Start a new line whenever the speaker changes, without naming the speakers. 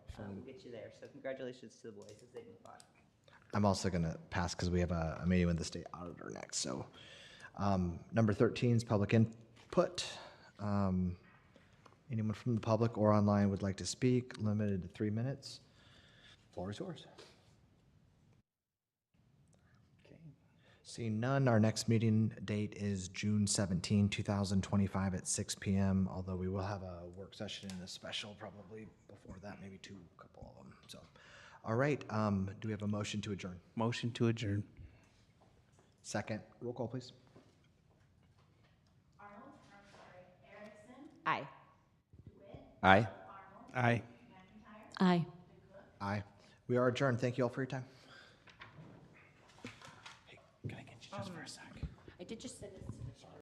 we'll get you there. So congratulations to the boys as they move on.
I'm also going to pass because we have a, a meeting with the state auditor next. So, um, number 13 is public input. Um, anyone from the public or online would like to speak, limited to three minutes. Floor is yours. Okay. Seeing none, our next meeting date is June 17, 2025 at 6 p.m., although we will have a work session and a special probably before that, maybe two, couple of them. So, all right, um, do we have a motion to adjourn?
Motion to adjourn.
Second, roll call, please.
Aye.
Aye. Aye.
Aye.
Aye. We are adjourned. Thank you all for your time.